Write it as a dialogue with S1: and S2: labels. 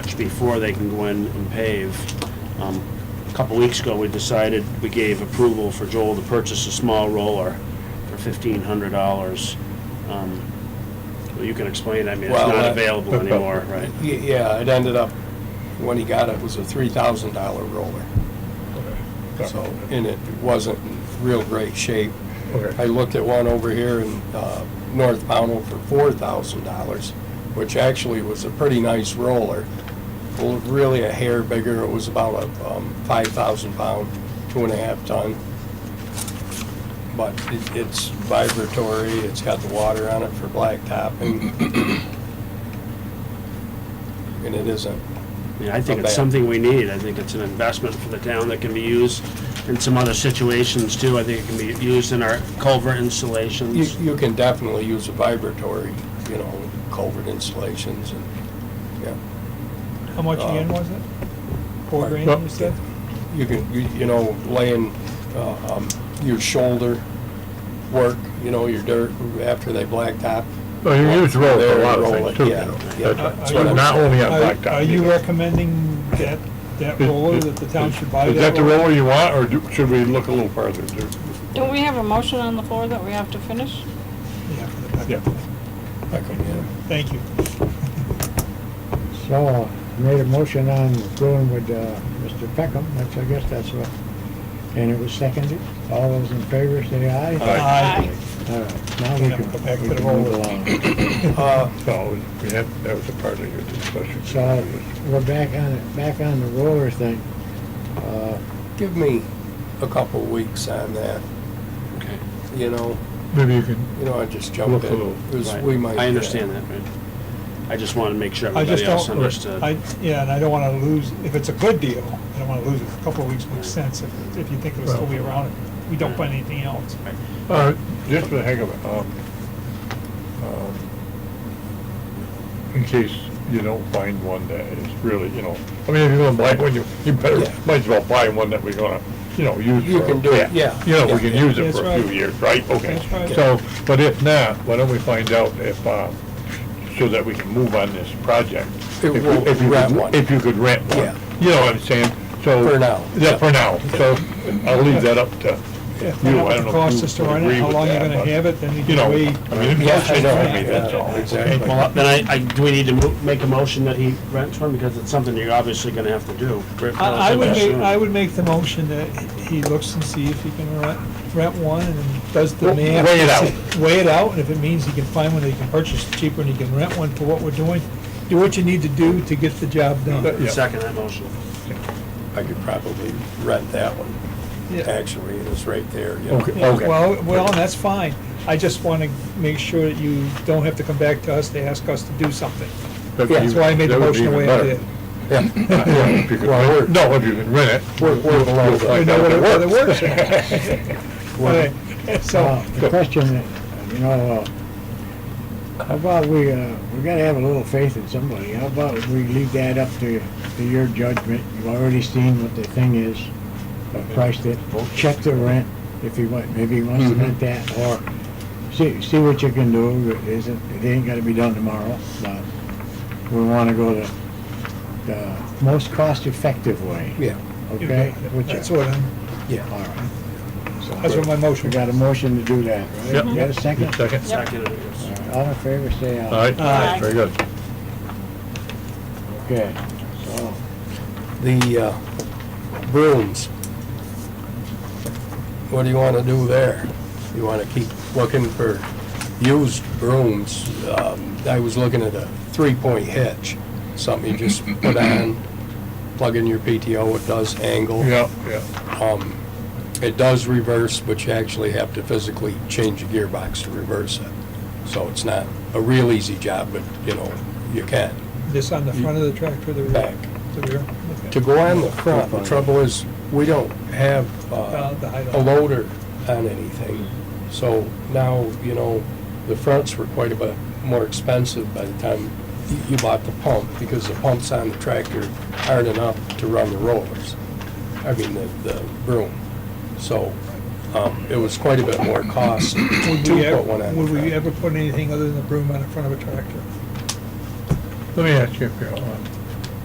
S1: before they can go in and pave. Um, A couple weeks ago, we decided, we gave approval for Joel to purchase a small roller for fifteen hundred dollars. Um, Well, you can explain, I mean, it's
S2: Well,
S1: not
S2: uh,
S1: available anymore, right?
S2: Y- Yeah, it ended up, when he got it, it was a three thousand dollar roller. So, and it wasn't in real great shape.
S3: Okay.
S2: I looked at one over here in uh, North Pownell for four thousand dollars, which actually was a pretty nice roller. Well, Really a hair bigger, it was about a um, five thousand pound, two and a half ton. But it- it's vibratory, it's got the water on it for blacktop and, and it isn't.
S1: I mean, I think
S2: Not
S1: it's
S2: bad.
S1: something we need. I think it's an investment for the town that can be used in some other situations too. I think it can be used in our culvert
S2: You,
S1: installations.
S2: you can definitely use a vibratory, you know, culvert installations and, yeah.
S3: How much
S2: again
S4: Um,
S3: was it?
S2: Four grand, you said?
S3: Uh,
S2: You can, you, you know, laying, uh, um, your shoulder work, you know, your dirt after they blacktop.
S4: Well, you use roll for a lot of
S2: Roll
S4: things
S2: it,
S4: too, you
S2: yeah,
S4: know.
S2: yeah.
S4: That's-
S2: That's
S3: Are
S2: what
S3: you-
S2: I'm
S4: Not
S2: saying.
S4: only on
S3: Are
S4: blacktop.
S3: are you
S4: either.
S3: recommending that, that roller, that the town should buy that?
S4: Is that the
S3: roller?
S4: roller you want, or do- should we look a little farther? Do-
S5: Don't we have a motion on the floor that we have to finish?
S3: Yeah, for the bucket.
S4: Yeah.
S2: Okay, yeah.
S3: Thank you.
S6: So, made a motion on going with uh, Mr. Peckham, that's, I guess that's what, and it was seconded. All those in favor say aye.
S3: Aye.
S6: All right, now we
S3: Now
S6: can,
S3: go back to
S6: we
S3: the
S6: can
S3: roll.
S6: move along.
S2: Uh,
S4: So, we had, that was a part of your discussion.
S6: So, we're back on, it. back on the roller thing. Uh,
S2: give me a couple weeks on that,
S1: Okay,
S2: you know,
S4: Maybe you can.
S2: you know, I just jumped
S4: Look
S2: in.
S4: a little,
S2: It was-
S1: right.
S2: we might- uh,
S1: I understand that, right? I just want to make sure
S3: I just
S1: everybody else
S3: don't,
S1: understood.
S3: I, yeah, and I don't wanna lose, if it's a good deal, I don't wanna lose it. A couple of weeks makes sense if, if you think it'll still be around, if we don't find anything else.
S4: Uh, Just for the heck of it, um, um, in case you don't find one that is really, you know, I mean, if you're gonna buy one, you, you better,
S2: Yeah.
S4: might as well buy one that we're gonna, you know, use
S2: You
S4: for-
S2: can do it, yeah.
S4: You know, we can
S2: Yeah,
S4: use it
S3: That's
S4: for a few
S3: right.
S4: years, right? Okay.
S3: That's right.
S4: So, but if not, why don't we find out if, uh, so that we can move on this project?
S2: It
S4: If you-
S2: will
S4: if you could-
S2: rent one.
S4: If you could rent one.
S2: Yeah.
S4: You know what I'm saying? So.
S2: For now.
S4: Yeah, for now. So I'll leave that up to
S3: Yeah,
S4: you,
S3: find out
S4: I
S3: what
S4: don't
S3: it
S4: know.
S3: costs us to run it, how long you're gonna have it, then you can weigh.
S4: I mean, it's
S2: Yeah,
S4: all changed
S2: I know.
S4: for me, that's all.
S2: Exactly.
S4: Okay.
S1: Well, then I, I, do we need to mo- make a motion that he rents one? Because it's something you're obviously going to have to do.
S3: I I would make,
S1: Soon.
S3: I would make the motion that he looks and see if he can rent, rent one and then does the
S4: Well,
S3: math.
S4: weigh it out.
S3: Weigh it out, and if it means he can find one that he can purchase cheaper and he can rent one for what we're doing, do what you need to do to get the job done.
S4: Yeah.
S1: Second that motion.
S2: I could probably rent that one,
S3: Yeah.
S2: actually, it is right there, you know.
S4: Okay,
S3: Yeah,
S4: okay.
S3: Well, well, and that's fine. I just want to make sure that you don't have to come back to us to ask us to do something.
S4: That'd be
S3: That's why I made the
S4: even- that would be
S3: motion the
S4: even
S3: way I
S4: better.
S3: did.
S4: Yeah, if you could rent it. No, if you can rent it.
S2: We're- we're below
S4: you'll
S2: that.
S4: find
S3: We know
S4: out if
S3: whether it works.
S6: Well,
S3: Okay,
S6: uh,
S4: ah,
S3: So,
S6: The question, that, you know, uh, how about we, uh, we gotta have a little faith in somebody. How about we leave that up to, to your judgment? You've already seen what the thing is, uh, priced it. Check the rent if he want, maybe he wants to
S3: Mm-hmm.
S6: rent that, or see, see what you can do. Is it, it ain't gotta be done tomorrow, but we wanna go the, the most cost-effective way.
S2: Yeah,
S6: Okay? Which-
S3: that's what I'm,
S6: All
S2: yeah.
S6: right. So-
S3: that's what my
S6: we
S3: motion
S6: got a motion to do that, right?
S4: Yep.
S6: You got a second?
S4: Second.
S1: Second it is.
S6: All right, All in favor, say
S4: All
S6: aye.
S4: right,
S3: Aye.
S4: very good.
S6: Okay, so,
S2: The uh, brooms, what do you want to do there? You want to keep looking for used brooms? Um, I was looking at a three-point hitch, something you just put on, plug in your PTO, it does angle.
S4: Yeah, yeah.
S2: Um, It does reverse, but you actually have to physically change the gearbox to reverse it. So it's not a real easy job, but, you know, you can.
S3: This on the front of the tractor, the rear?
S2: Back.
S3: The rear?
S2: To
S3: okay.
S2: go on the front, the trouble is, we don't have
S3: Uh,
S2: uh,
S3: the
S4: oh,
S3: height
S2: a
S3: of-
S2: loader on anything. So now, you know, the fronts were quite a bit more expensive by the time you- you bought the pump, because the pumps on the tractor aren't enough to run the rollers, I mean, the, the broom. So um, it was quite a bit more cost to
S3: Would we ever-
S2: put one on the
S3: Would we
S2: front.
S3: ever put anything other than the broom on the front of a tractor?
S4: Let me ask you, Carol, um,